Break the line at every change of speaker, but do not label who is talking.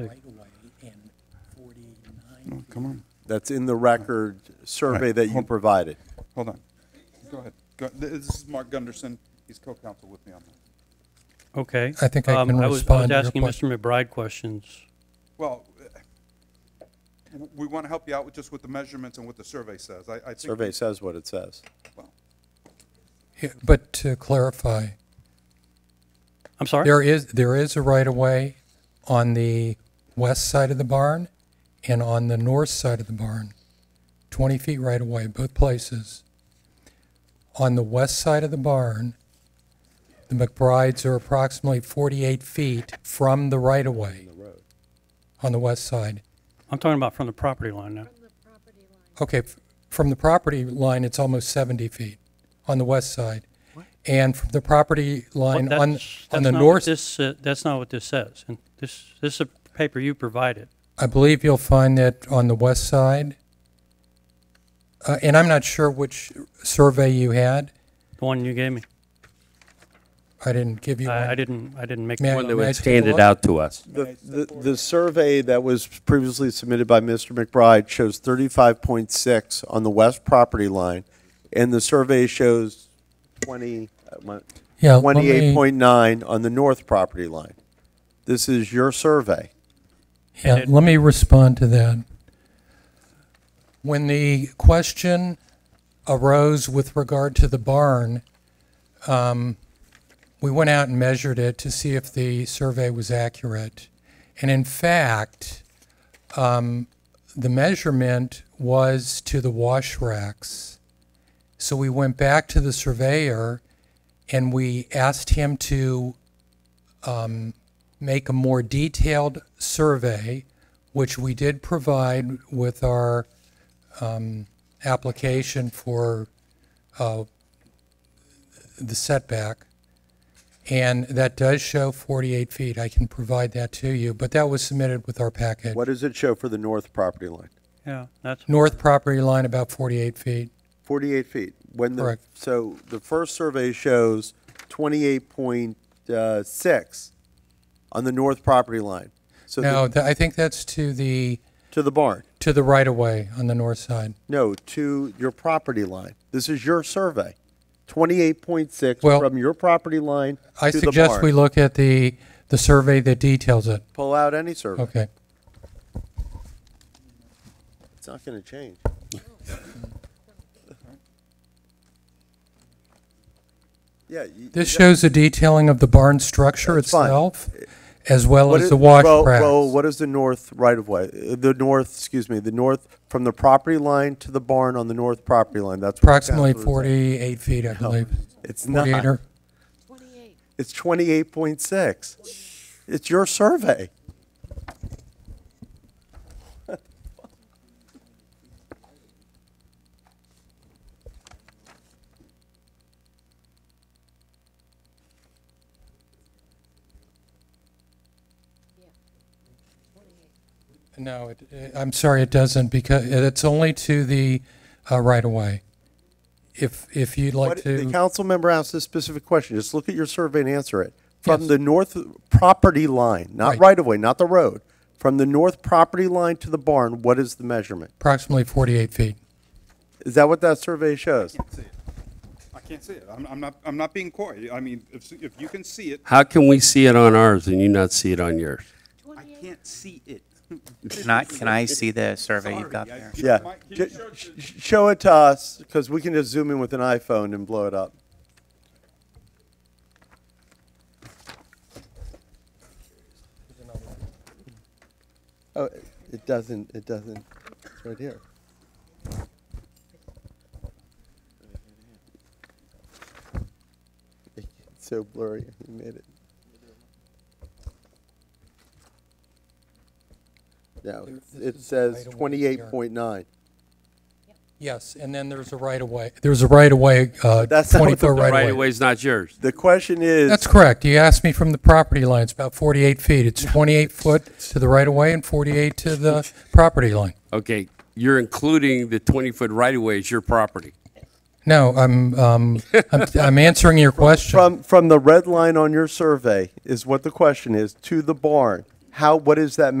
right-of-way and 49
Oh, Come on,
That's in the record survey
Right.
that you
Hold-
provided.
hold on. Go ahead. Go- This is Mark Gunderson. He's co-counsel with me on that.
Okay.
I think I
Um,
can
was-
respond to
I
your
was asking
question.
Mr. McBride questions.
Well, uh, Oh, we want to help you out with just with the measurements and what the survey says. I, I think.
Survey says what it says.
well,
Yeah, But to clarify,
I'm sorry?
there is, there is a right-of-way on the west side of the barn and on the north side of the barn, 20 feet right-of-way, both places. On the west side of the barn, the McBrides are approximately 48 feet from the right-of-way on the west side.
I'm talking about from the property line now.
Okay, f- from the property line, it's almost 70 feet on the west side. And from the property
What-
line on,
that's- that's
on the
not what
north,
This, uh, that's not what this says. And this, this is a paper you provided.
I believe you'll find that on the west side. Uh, And I'm not sure which survey you had.
The one you gave me.
I didn't give you one.
I, I didn't, I didn't make
May I-
the one that
may
was.
I
It
take
was
a
handed
look?
out to us.
The, the, the survey that was previously submitted by Mr. McBride shows thirty-five point six on the west property line, and the survey shows twenty, uh, my-
Yeah, let me-
28.9 on the north property line. This is your survey.
Yeah,
it-
let me respond to that. When the question arose with regard to the barn, um, we went out and measured it to see if the survey was accurate. And in fact, um, the measurement was to the wash racks. So we went back to the surveyor and we asked him to um, make a more detailed survey, which we did provide with our um, application for uh, the setback. And that does show 48 feet. I can provide that to you, but that was submitted with our package.
What does it show for the north property line?
Yeah, that's,
North property line about 48 feet.
48 feet. When the,
Correct.
so the first survey shows 28.6 on the north property line. So
No,
the-
th- I think that's to the
to the barn.
to the right of way on the north side.
No, to your property line. This is your survey. 28.6
Well,
from your property line
I
to the
suggest
barn.
we look at the the survey that details it.
Pull out any survey.
Okay.
It's not going to change. Yeah. you-
This shows the detailing of the barn structure
That's fine. Uh,
itself, as well
What
as
is-
the Oh, wash
well-
racks.
Well, what is the north right of way? Uh, The north, excuse me, the north, from the property line to the barn on the north property line, that's. what the
Approximately
council is saying.
48 feet, I believe.
It's
48
not.
or,
It's twenty-eight point six. It's your survey.
no, it- it- I'm sorry, it doesn't, because it's only to the uh, right-of-way. If, if you'd like
What- The
to,
council member asked a specific question. Just look at your survey and answer it. From the north property line, not
Right.
right of way, not the road, from the north property line to the barn, what is the measurement?
approximately 48 feet.
Is that what that survey shows?
I can't see it. I can't see it. I'm, I'm not, I'm not being coy. I mean, if, if you can see it,
How can we see it on ours and you not see it on yours?
I can't see it.
Can I, can I see the survey you've got there?
Yeah.
Mike, can you
Ju-
show it
sh-
to-
sh- Show it to us, because we can just zoom in with an iPhone and blow it up. Oh, it- it doesn't, it doesn't, it's right here. It's so blurry, you made it. No, it's-
This
it
is
says
right away here.
twenty-eight point nine.
Yes, and then there's a right-of-way, there's a right-of-way, uh,
That's not what
20-foot
the- the
Right
right-of-way.
away's not yours.
The question is.
That's correct. You asked me from the property line, it's about 48 feet. It's 28 foot to the right-of-way and 48 to the property line.
Okay, you're including the 20-foot right-of-way as your property.
No, I'm, um, I'm, I'm answering your question.
From, from the red line on your survey is what the question is, to the barn, how, what is that measurement?